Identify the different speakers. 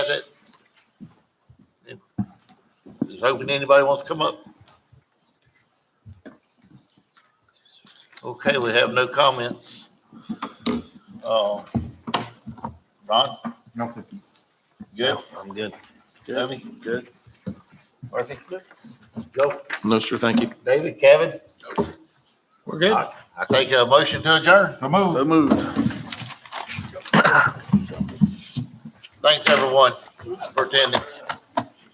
Speaker 1: Just hoping anybody wants to come up. Okay, we have no comments. Uh, Ron,
Speaker 2: Nothing.
Speaker 1: good? I'm good. Debbie?
Speaker 3: Good.
Speaker 1: Murphy? Good. Joe?
Speaker 3: No, sir, thank you.
Speaker 1: David? Kevin?
Speaker 4: We're good.
Speaker 1: I I take a motion to adjourn.
Speaker 2: So move.
Speaker 3: So moved.
Speaker 1: Thanks, everyone, for attending.